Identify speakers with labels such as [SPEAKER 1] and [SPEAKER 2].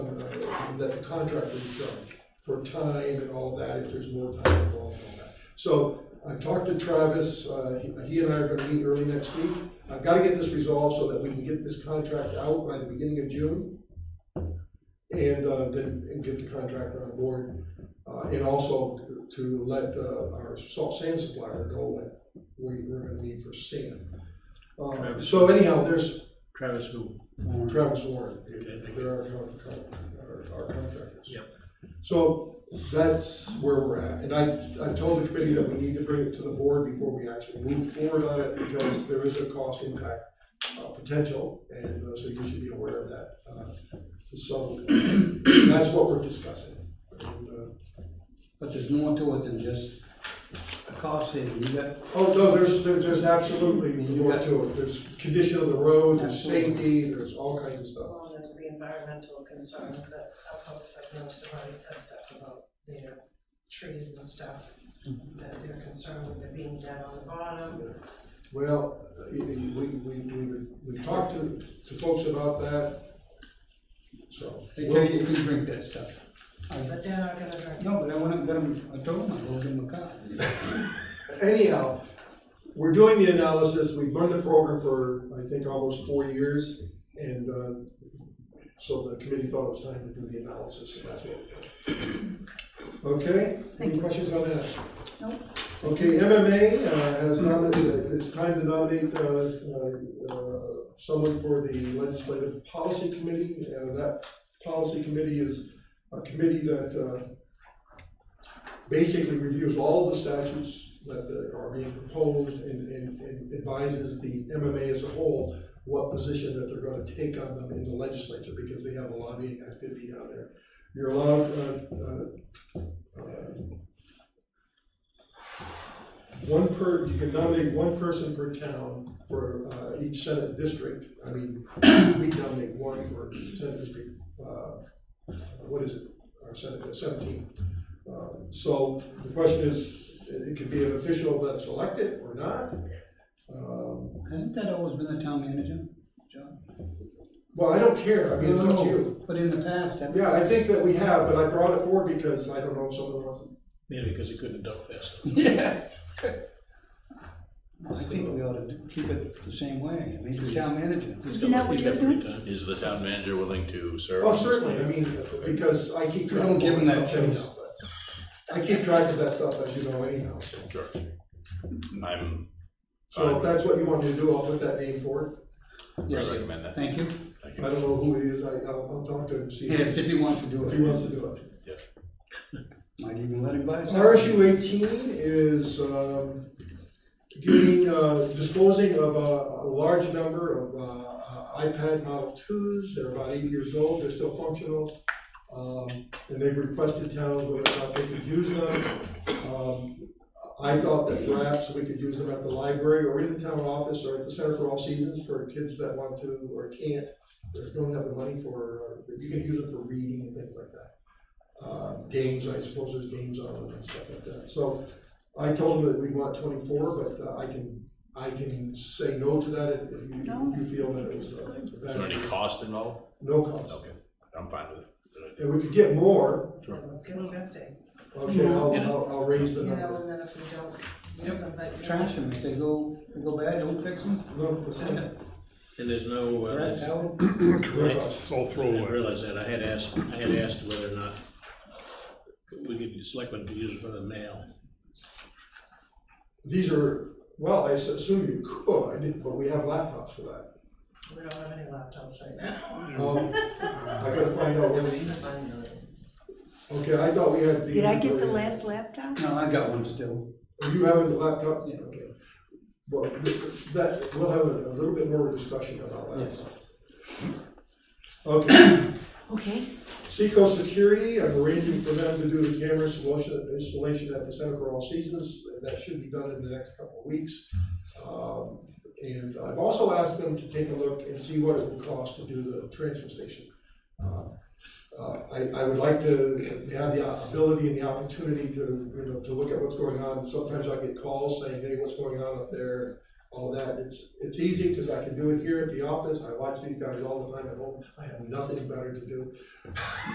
[SPEAKER 1] that the contractor would charge for time and all that, if there's more time involved and all that. So I've talked to Travis, uh, he- he and I are gonna meet early next week. I've gotta get this resolved so that we can get this contract out by the beginning of June. And, uh, then, and get the contractor on board, uh, and also to let, uh, our salt sand supplier know what we, we're gonna need for sand. Uh, so anyhow, there's
[SPEAKER 2] Travis who?
[SPEAKER 1] Travis Warren,
[SPEAKER 2] Okay, thank you.
[SPEAKER 1] they're our, con- con- our, our contractors.
[SPEAKER 2] Yep.
[SPEAKER 1] So that's where we're at, and I, I told the committee that we need to bring it to the board before we actually move forward on it, because there is a cost impact, uh, potential, and uh, so you should be aware of that. Uh, So that's what we're discussing. And, uh,
[SPEAKER 3] But there's more to it than just a cost saving, you got,
[SPEAKER 1] Oh, no, there's, there's, there's absolutely more to it, there's condition of the road, there's safety, there's all kinds of stuff.
[SPEAKER 4] Well, there's the environmental concerns that some folks I've noticed have already said stuff about their trees and stuff. That they're concerned with there being dead on the bottom,
[SPEAKER 1] Well, uh, y- y- we, we, we, we talked to, to folks about that, so.
[SPEAKER 3] they tell you you can drink that stuff. I-
[SPEAKER 4] but they're not gonna drink.
[SPEAKER 3] No, but I went up and got him, I told him I wrote him a card.
[SPEAKER 1] Anyhow, we're doing the analysis, we've run the program for, I think, almost four years, and, uh, so the committee thought it was time to do the analysis, and that's what we're doing. Okay, any questions on that? Nope. Okay, MMA uh, has nominated, it's time to nominate, uh, uh, uh, someone for the Legislative Policy Committee, and that policy committee is a committee that, uh, basically reviews all the statutes that that are being proposed and, and and advises the MMA as a whole what position that they're gonna take on them in the legislature, because they have a lobbying activity down there. You're allowed, uh, uh, uh, one per, you can nominate one person per town for, uh, each senate district, I mean, we nominate one for senate district, uh, what is it, our senate, uh, seventeen. Um, So the question is, it it could be an official that's elected or not. Um,
[SPEAKER 3] Hasn't that always been the town manager, John?
[SPEAKER 1] Well, I don't care, I mean, it's up to you.
[SPEAKER 3] But in the past, that.
[SPEAKER 1] Yeah, I think that we have, but I brought it forward because I don't know if someone wants it.
[SPEAKER 2] Maybe because he couldn't duck fast.
[SPEAKER 3] I think we ought to do- keep it the same way, I mean, the town manager.
[SPEAKER 5] Isn't that what
[SPEAKER 2] He's got
[SPEAKER 5] you're
[SPEAKER 2] free time.
[SPEAKER 6] Is the town manager willing to serve?
[SPEAKER 1] Oh, certainly, I mean, because I keep
[SPEAKER 3] We
[SPEAKER 1] track
[SPEAKER 3] don't
[SPEAKER 1] of
[SPEAKER 3] give
[SPEAKER 1] all
[SPEAKER 3] them
[SPEAKER 1] that
[SPEAKER 3] that
[SPEAKER 1] stuff
[SPEAKER 3] choice.
[SPEAKER 1] anyhow. but I keep track of that stuff, as you know, anyhow. so.
[SPEAKER 6] Sure. I'm,
[SPEAKER 1] So if that's what you want me to do, I'll put that name forward.
[SPEAKER 6] I
[SPEAKER 3] Yes.
[SPEAKER 6] recommend that.
[SPEAKER 3] Thank you.
[SPEAKER 1] I
[SPEAKER 6] Thank you.
[SPEAKER 1] don't know who he is, I, I'll I'll talk to him, and see
[SPEAKER 3] Yes,
[SPEAKER 1] if
[SPEAKER 3] if he wants to do
[SPEAKER 1] he wants
[SPEAKER 3] it,
[SPEAKER 1] to do it.
[SPEAKER 3] might even let him buy some.
[SPEAKER 1] RSU Uh, eighteen is um, giving, uh, disposing of a, a large number of uh, iPad Model twos, they're about eight years old, they're still functional. Um, And they've requested towns whether or not they could use them. Um, I thought that perhaps we could use them at the library or in the town office or at the Center for All Seasons for kids that want to or can't, or don't have the money for, uh, you can use them for reading and things like that uh, games, I suppose there's games on them and stuff like that. So I told them that we want twenty-four, but uh, I can, I can say no to that if you, if you feel that it was. uh,
[SPEAKER 6] Is there any
[SPEAKER 1] that-
[SPEAKER 6] cost involved?
[SPEAKER 1] No cost.
[SPEAKER 6] Okay, I'm fine with it.
[SPEAKER 1] And we could get more,
[SPEAKER 4] So let's give them fifty,
[SPEAKER 1] okay, I'll,
[SPEAKER 2] Yeah.
[SPEAKER 1] I'll, I'll raise the
[SPEAKER 4] you know,
[SPEAKER 1] number.
[SPEAKER 4] and then if we don't use them, that.
[SPEAKER 3] Trash them, if they go, they go bad, don't fix them,
[SPEAKER 1] No, it's
[SPEAKER 3] send
[SPEAKER 1] not-
[SPEAKER 3] it.
[SPEAKER 2] And there's no, uh,
[SPEAKER 3] Right,
[SPEAKER 2] there's- I
[SPEAKER 3] Al?
[SPEAKER 1] no cost.
[SPEAKER 7] It's all
[SPEAKER 2] didn't
[SPEAKER 7] throwaway.
[SPEAKER 2] realize that, I had asked, I had asked whether or not we could, selectmen could use it for the mail.
[SPEAKER 1] These are, well, I s- assume you could, but we have laptops for that.
[SPEAKER 4] We don't have any laptops right now.
[SPEAKER 1] Um, I gotta find out where the, okay, I thought we had the.
[SPEAKER 5] Did I get the last laptop?
[SPEAKER 3] No, I got one still.
[SPEAKER 1] Are you having the laptop?
[SPEAKER 3] Yeah.
[SPEAKER 1] Okay. Well, th- that, we'll have a a little bit more discussion about
[SPEAKER 3] Yes.
[SPEAKER 1] laptops. Okay,
[SPEAKER 5] Okay.
[SPEAKER 1] Seco Security, I'm arranging for them to do the camera installation, installation at the Center for All Seasons. That should be done in the next couple of weeks. Um, And I've also asked them to take a look and see what it would cost to do the transfer station. Uh, uh, I, I would like to have the ability and the opportunity to, you know, to look at what's going on. Sometimes I get calls saying, hey, what's going on up there, all that. It's, it's easy because I can do it here at the office. I watch these guys all the time at home. I have nothing better to do.